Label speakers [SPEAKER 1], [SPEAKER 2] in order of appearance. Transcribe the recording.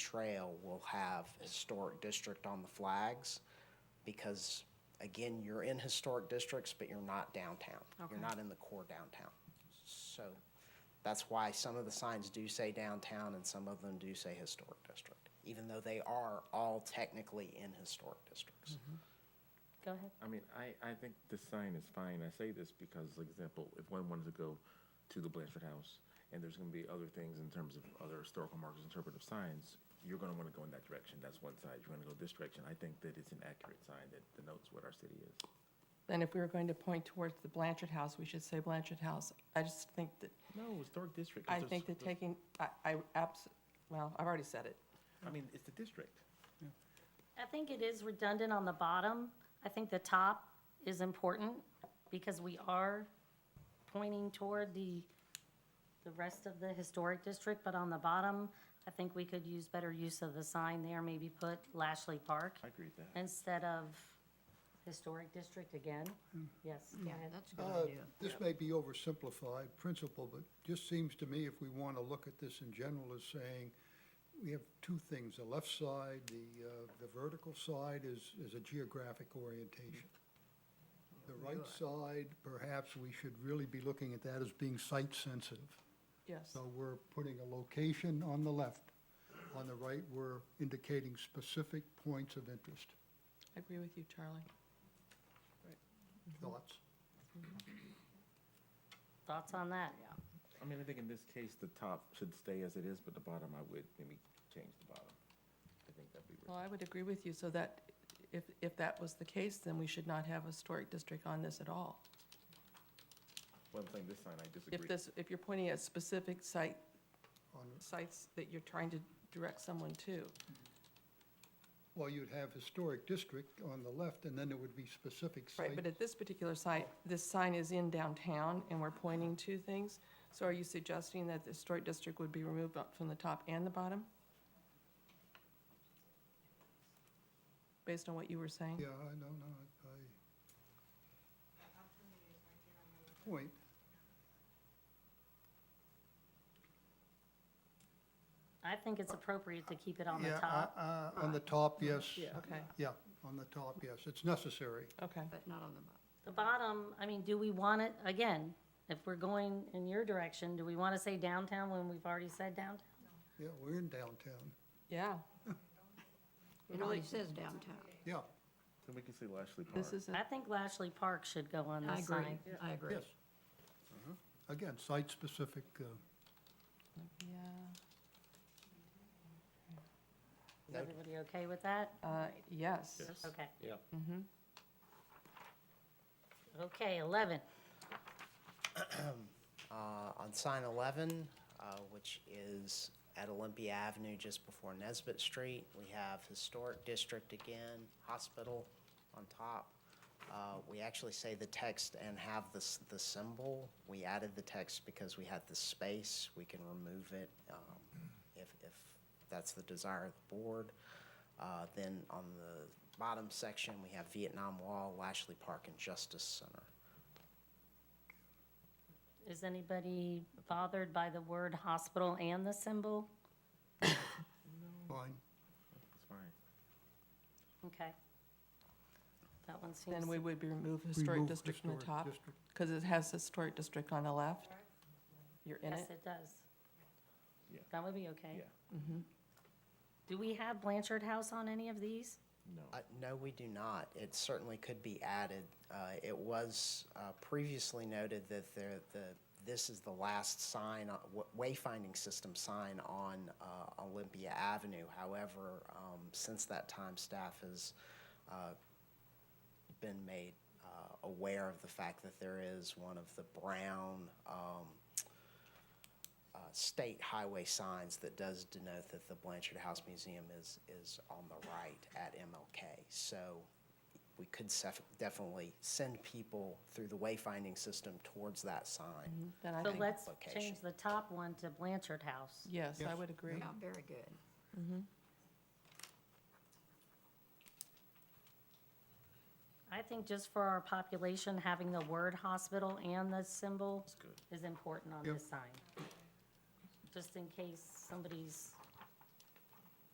[SPEAKER 1] trail will have historic district on the flags because, again, you're in historic districts, but you're not downtown. You're not in the core downtown. So that's why some of the signs do say downtown and some of them do say historic district, even though they are all technically in historic districts.
[SPEAKER 2] Go ahead.
[SPEAKER 3] I mean, I, I think this sign is fine. I say this because, like example, if one wanted to go to the Blanchard House and there's gonna be other things in terms of other historical markers, interpretive signs, you're gonna wanna go in that direction. That's one side. You're gonna go this direction. I think that it's an accurate sign that denotes what our city is.
[SPEAKER 4] Then if we were going to point towards the Blanchard House, we should say Blanchard House. I just think that,
[SPEAKER 3] No, historic district. 'cause
[SPEAKER 4] I
[SPEAKER 3] there's-
[SPEAKER 4] think that
[SPEAKER 3] there's-
[SPEAKER 4] taking, I, I abs, well, I've already said it.
[SPEAKER 3] I mean, it's the district.
[SPEAKER 2] I think it is redundant on the bottom. I think the top is important because we are pointing toward the, the rest of the historic district, but on the bottom, I think we could use better use of the sign there, maybe put Lashley Park
[SPEAKER 3] I agree with that.
[SPEAKER 2] instead of historic district again. Yes, go
[SPEAKER 5] Yeah,
[SPEAKER 2] ahead.
[SPEAKER 5] that's a
[SPEAKER 6] Oh.
[SPEAKER 5] good idea.
[SPEAKER 6] Uh, This may be oversimplified principle, but just seems to me if we want to look at this in general as saying, we have two things, the left side, the, uh, the vertical side is, is a geographic orientation. The right side, perhaps we should really be looking at that as being site sensitive.
[SPEAKER 4] Yes.
[SPEAKER 6] So we're putting a location on the left. On the right, we're indicating specific points of interest.
[SPEAKER 4] I agree with you, Charlie.
[SPEAKER 6] Thoughts?
[SPEAKER 2] Thoughts on that?
[SPEAKER 3] I mean, I think in this case, the top should stay as it is, but the bottom, I would maybe change the bottom. I think that'd be.
[SPEAKER 4] Well, I would agree with you, so that if, if that was the case, then we should not have a historic district on this at all.
[SPEAKER 3] Well, I'm saying this sign, I disagree.
[SPEAKER 4] If this, if you're pointing at specific site,
[SPEAKER 6] On-
[SPEAKER 4] sites that you're trying to direct someone to.
[SPEAKER 6] Well, you'd have historic district on the left, and then there would be specific site.
[SPEAKER 4] Right, but at this particular site, this sign is in downtown and we're pointing to things. So are you suggesting that the historic district would be removed up from the top and the bottom? Based on what you were saying?
[SPEAKER 6] Yeah, I know, no, I- I. Point.
[SPEAKER 2] I think it's appropriate to keep it on the
[SPEAKER 6] Yeah,
[SPEAKER 2] top.
[SPEAKER 6] uh, uh, On the top, yes.
[SPEAKER 4] Okay,
[SPEAKER 6] Yeah, on the top, yes, it's necessary.
[SPEAKER 4] okay.
[SPEAKER 5] But not on the bottom.
[SPEAKER 2] The bottom, I mean, do we want it, again, if we're going in your direction, do we want to say downtown when we've already said downtown?
[SPEAKER 6] Yeah, we're in downtown.
[SPEAKER 4] Yeah,
[SPEAKER 5] It only says downtown.
[SPEAKER 6] Yeah,
[SPEAKER 3] Then we can see Lashley Park.
[SPEAKER 4] this isn't,
[SPEAKER 2] I think Lashley Park should go on
[SPEAKER 5] I
[SPEAKER 2] the
[SPEAKER 5] agree,
[SPEAKER 2] sign.
[SPEAKER 5] I agree.
[SPEAKER 6] yes. Uh-huh. Again, site-specific, uh,
[SPEAKER 4] yeah,
[SPEAKER 2] Is everybody okay with that?
[SPEAKER 4] uh, yes.
[SPEAKER 2] Okay. Yeah.
[SPEAKER 4] Mm-hmm.
[SPEAKER 2] Okay, 11.
[SPEAKER 1] Uh, on sign 11, uh, which is at Olympia Avenue just before Nesbit Street, we have Historic District again, Hospital on top. Uh, we actually say the text and have this, the symbol. We added the text because we had the space. We can remove it, um, if, if that's the desire of the board. Uh, then on the bottom section, we have Vietnam Wall, Lashley Park, and Justice Center.
[SPEAKER 2] Is anybody bothered by the word hospital and the symbol?
[SPEAKER 6] fine.
[SPEAKER 3] It's fine.
[SPEAKER 2] Okay. That one seems,
[SPEAKER 4] Then we would be remove
[SPEAKER 6] Remove
[SPEAKER 4] historic district from the
[SPEAKER 6] historic
[SPEAKER 4] top,
[SPEAKER 6] district.
[SPEAKER 4] because it has historic district on the left. You're in
[SPEAKER 2] yes,
[SPEAKER 4] it.
[SPEAKER 2] it does.
[SPEAKER 3] Yeah.
[SPEAKER 2] That would be okay.
[SPEAKER 3] Yeah.
[SPEAKER 2] Do we have Blanchard House on any of these?
[SPEAKER 3] No.
[SPEAKER 1] Uh, no, we do not. It certainly could be added. Uh, it was, uh, previously noted that there, the, this is the last sign, uh, wa- wayfinding system sign on, uh, Olympia Avenue. However, um, since that time, staff has, uh, been made, uh, aware of the fact that there is one of the brown, um, uh, state highway signs that does denote that the Blanchard House Museum is, is on the right at MLK. So we could sef- definitely send people through the wayfinding system towards that sign.
[SPEAKER 4] Then I
[SPEAKER 2] So
[SPEAKER 4] think,
[SPEAKER 2] let's
[SPEAKER 1] Location.
[SPEAKER 2] change the top one to Blanchard House.
[SPEAKER 4] yes, I
[SPEAKER 6] Yes.
[SPEAKER 4] would agree.
[SPEAKER 5] Yeah, very good.
[SPEAKER 2] I think just for our population, having the word hospital and the symbol is important on
[SPEAKER 6] Yep.
[SPEAKER 2] this sign. Just in case somebody's